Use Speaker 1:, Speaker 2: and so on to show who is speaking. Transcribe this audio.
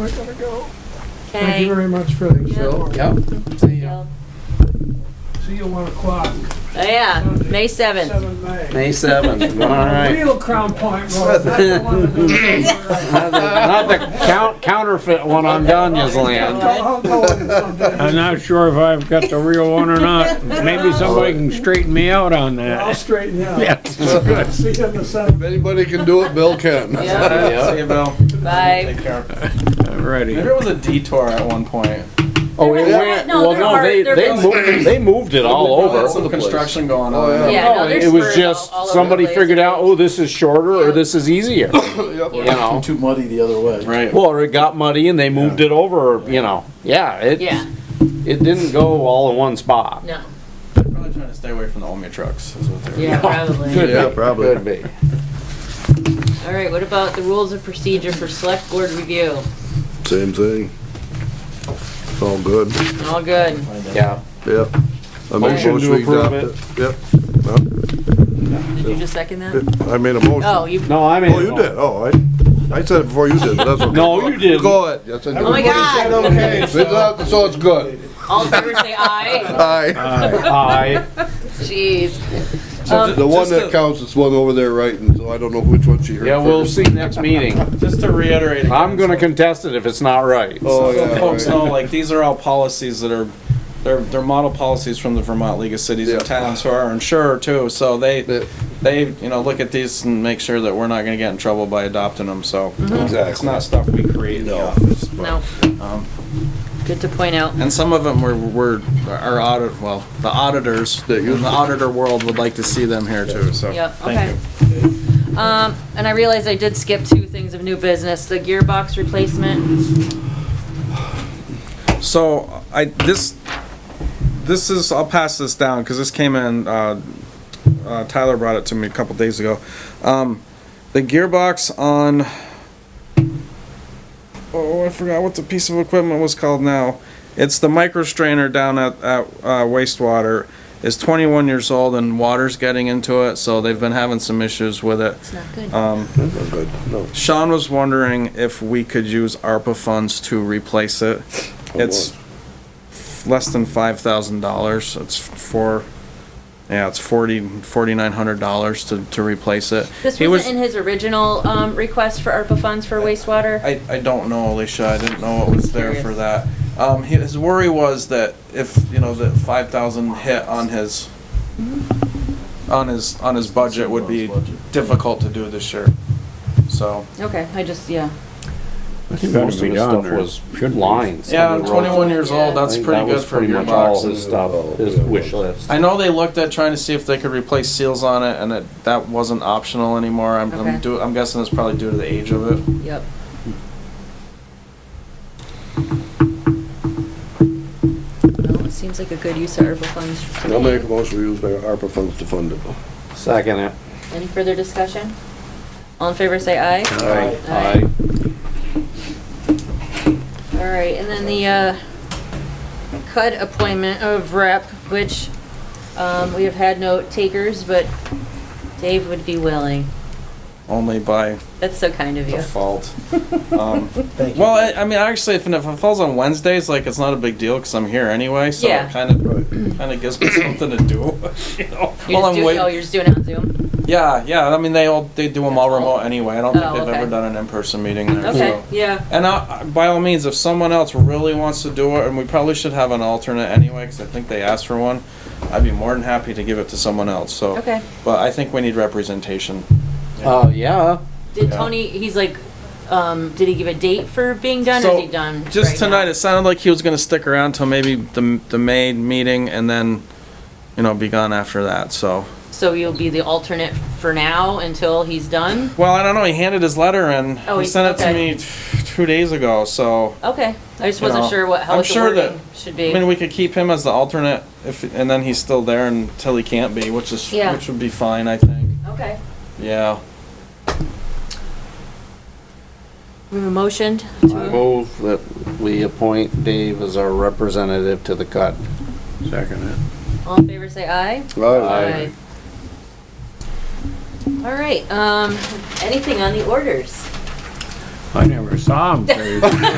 Speaker 1: I gotta go. Thank you
Speaker 2: Okay.
Speaker 1: very much for the
Speaker 2: So,
Speaker 1: support.
Speaker 3: Yep. See ya.
Speaker 2: Oh,
Speaker 1: See you one o'clock.
Speaker 2: Yeah, May 7th.
Speaker 1: Seven May.
Speaker 3: May 7th, all right.
Speaker 1: Real Crown Point Road, not the one that goes-
Speaker 3: Not the- Not the count- counterfeit one on Dania's land.
Speaker 1: I'll go in someday.
Speaker 4: I'm not sure if I've got the real one or not. Maybe somebody can straighten me out on
Speaker 1: I'll
Speaker 4: that.
Speaker 1: straighten you out.
Speaker 4: Yeah.
Speaker 1: See you on the seventh.
Speaker 5: If anybody can do it, Bill can.
Speaker 2: Yeah.
Speaker 6: See you, Bill.
Speaker 2: Bye.
Speaker 6: Take care.
Speaker 4: Alrighty.
Speaker 6: There was a detour at one point.
Speaker 3: Oh,
Speaker 2: There
Speaker 3: it
Speaker 2: was-
Speaker 3: went,
Speaker 2: no,
Speaker 3: well,
Speaker 2: there
Speaker 3: no,
Speaker 2: are-
Speaker 3: they,
Speaker 2: there
Speaker 3: they
Speaker 2: was-
Speaker 3: moved, they moved it all
Speaker 6: Probably
Speaker 3: over.
Speaker 6: Some
Speaker 3: the place.
Speaker 6: construction going
Speaker 5: Oh,
Speaker 6: on.
Speaker 2: Yeah, no, there's
Speaker 3: It was
Speaker 2: spurs
Speaker 3: just,
Speaker 2: all- all over the
Speaker 3: somebody
Speaker 2: place.
Speaker 3: figured out, oh, this is shorter or this is easier, you know?
Speaker 7: too muddy the other way.
Speaker 6: Right.
Speaker 3: Well, or it got muddy and they moved it over, or, you know, yeah, it,
Speaker 2: Yeah,
Speaker 3: it didn't go all in one spot.
Speaker 2: no,
Speaker 6: Probably trying to stay away from the Omia trucks is what they're.
Speaker 2: yeah, probably.
Speaker 3: Could
Speaker 5: Yeah,
Speaker 3: be,
Speaker 5: probably.
Speaker 3: Could be.
Speaker 2: All right, what about the rules of procedure for select board review?
Speaker 5: Same thing. It's all good.
Speaker 2: All good.
Speaker 3: Yeah,
Speaker 5: Yep. I make a
Speaker 3: Motion to
Speaker 5: we
Speaker 3: approve
Speaker 5: adopt Yep.
Speaker 2: Did you just second that?
Speaker 5: I made a motion.
Speaker 2: Oh, you,
Speaker 3: no, I mean.
Speaker 5: Oh, you did. Oh, I, I said it before you did, but that's okay.
Speaker 3: No, you didn't.
Speaker 5: Go ahead. Yes, I did.
Speaker 2: oh my God.
Speaker 5: Okay, so- So it's good.
Speaker 2: All in favor, say aye.
Speaker 3: Uh,
Speaker 5: Aye.
Speaker 3: Aye.
Speaker 2: Jeez. Um,
Speaker 5: The one that
Speaker 6: comes.
Speaker 5: counts is one over there writing, so I don't know which one she heard
Speaker 3: Yeah, we'll
Speaker 5: first.
Speaker 3: see next meeting.
Speaker 6: Just to reiterate.
Speaker 3: I'm
Speaker 6: again,
Speaker 3: gonna
Speaker 6: so-
Speaker 3: contest it if it's not right.
Speaker 5: Oh,
Speaker 6: So
Speaker 5: yeah,
Speaker 6: folks
Speaker 5: right.
Speaker 6: know, like, these are all policies that are, they're, they're model policies from the Vermont League of Cities and
Speaker 5: Yeah.
Speaker 6: Towns who are our insurer too, so they,
Speaker 5: Yeah.
Speaker 6: they, you know, look at these and make sure that we're not gonna get in trouble by adopting them, so. It's
Speaker 5: Exactly.
Speaker 6: not stuff we create in the office.
Speaker 2: No.
Speaker 6: Um,
Speaker 2: Good to point out.
Speaker 6: And some of them were, were, our audit, well, the auditors, in the auditor world would like to see them here too, so.
Speaker 2: Yep,
Speaker 6: thank
Speaker 2: okay.
Speaker 6: you.
Speaker 2: Um, and I realized I did skip two things of new business, the gearbox replacement.
Speaker 6: So I, this, this is, I'll pass this down, because this came in, uh, uh, Tyler brought it to me a couple days ago. Um, the gearbox on, oh, I forgot what the piece of equipment was called now. It's the micro strainer down at, at uh, wastewater, is twenty-one years old and water's getting into it, so they've been having some issues with it.
Speaker 2: It's not good.
Speaker 5: That's not good. No.
Speaker 6: Sean was wondering if we could use ARPA funds to replace it.
Speaker 3: Oh,
Speaker 6: It's less than five thousand dollars. It's for, yeah, it's forty, forty-nine hundred dollars to, to replace it.
Speaker 2: This
Speaker 6: He
Speaker 2: wasn't in his original, um, request for ARPA funds for wastewater?
Speaker 6: I, I don't know, Alicia. I didn't know what was there for that. Um, hi- his worry was that if, you know, the five thousand hit on his, on his, on his budget would be difficult to do this year. So,
Speaker 2: Okay, I just, yeah.
Speaker 3: Most of his stuff was lines.
Speaker 6: yeah,
Speaker 3: on
Speaker 6: I'm
Speaker 3: the
Speaker 6: twenty-one
Speaker 3: roads.
Speaker 6: years old.
Speaker 2: Yeah.
Speaker 3: I
Speaker 6: That's
Speaker 3: think
Speaker 6: pretty
Speaker 3: that
Speaker 6: good
Speaker 3: was
Speaker 6: for a
Speaker 3: pretty
Speaker 6: gearbox.
Speaker 3: much All his stuff, his wish list.
Speaker 6: I know they looked at trying to see if they could replace seals on it, and it, that wasn't optional anymore. I'm,
Speaker 2: Okay.
Speaker 6: I'm, do, I'm guessing it's probably due to the age of it.
Speaker 2: Yep. Well, it seems like a good use of ARPA funds. to
Speaker 5: I'll
Speaker 2: me.
Speaker 5: make a motion to use the ARPA funds to fund it.
Speaker 3: Second it.
Speaker 2: Any further discussion? All in favor, say aye.
Speaker 5: Aye.
Speaker 2: Aye. All right, and then the, uh, CUD appointment of rep, which, um, we have had no takers, but Dave would be willing.
Speaker 6: Only by
Speaker 2: That's so kind of you.
Speaker 6: default. um, well, I, I mean, actually, if, if it falls on Wednesdays, like it's not a big deal because I'm here anyway, so
Speaker 2: Yeah.
Speaker 6: it kind of kind of gives me something to do. you know,
Speaker 2: You're
Speaker 6: while
Speaker 2: just
Speaker 6: I'm
Speaker 2: doing,
Speaker 6: wait-
Speaker 2: oh, you're just doing it on Zoom?
Speaker 6: Yeah, yeah. I mean, they all they do them all remote anyway. I don't think
Speaker 2: Oh,
Speaker 6: they've
Speaker 2: okay.
Speaker 6: ever done an in-person meeting there.
Speaker 2: Okay,
Speaker 6: So.
Speaker 2: yeah.
Speaker 6: And I, by all means, if someone else really wants to do it, and we probably should have an alternate anyway, because I think they asked for one, I'd be more than happy to give it to someone else. So,
Speaker 2: Okay.
Speaker 6: but I think we need representation.
Speaker 3: Uh, yeah,
Speaker 2: Did
Speaker 6: Yeah.
Speaker 2: Tony, he's like, um, did he give a date for being done or
Speaker 6: So,
Speaker 2: is he done?
Speaker 6: Just
Speaker 2: right now?
Speaker 6: tonight, it sounded like he was going to stick around till maybe the the May meeting, and then, you know, be gone after that. So,
Speaker 2: So you'll be the alternate for now until he's done?
Speaker 6: well, I don't know. He handed his letter in.
Speaker 2: Oh,
Speaker 6: he
Speaker 2: he-
Speaker 6: sent it to
Speaker 2: okay.
Speaker 6: me t- two days ago. So,
Speaker 2: Okay, I just
Speaker 6: You
Speaker 2: wasn't
Speaker 6: know,
Speaker 2: sure what, how
Speaker 6: I'm
Speaker 2: what the
Speaker 6: sure
Speaker 2: wording should
Speaker 6: I
Speaker 2: be.
Speaker 6: mean, we could keep him as the alternate, if and then he's still there until he can't be, which is
Speaker 2: Yeah.
Speaker 6: which would be fine, I think.
Speaker 2: Okay.
Speaker 6: Yeah.
Speaker 2: We were motioned
Speaker 3: I
Speaker 2: to,
Speaker 3: move that we appoint Dave as our representative to the cut.
Speaker 5: Second it.
Speaker 2: all in favor, say aye.
Speaker 3: Aye.
Speaker 2: All right, um, anything on the orders?
Speaker 4: I never saw him very